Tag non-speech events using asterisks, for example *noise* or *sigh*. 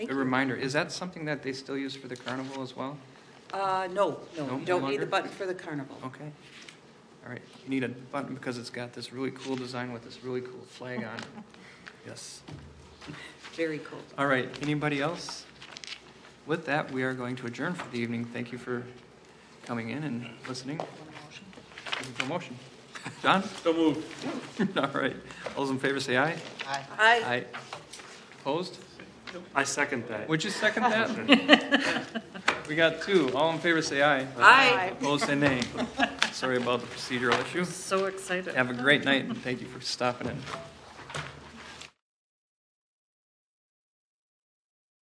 Thank A you. reminder, is that something that they still use for the carnival as well? Uh, no, No, no, Oh. no you don't need longer? the button for the carnival. Okay. All right, you need a button because it's got this really cool design with this really cool flag on it. Yes. Very cool. All right, anybody else? With that, we are going to adjourn for the evening. Thank you for coming in and listening. Looking for a motion. John? So moved. *laughs* All right, all those in favor say aye. Aye. Opposed? I second that. Would you second that? We got two. All in favor say aye. Aye. Opposed say nay. Sorry about the procedural issue. So excited. Have a great night, and thank you for stopping in.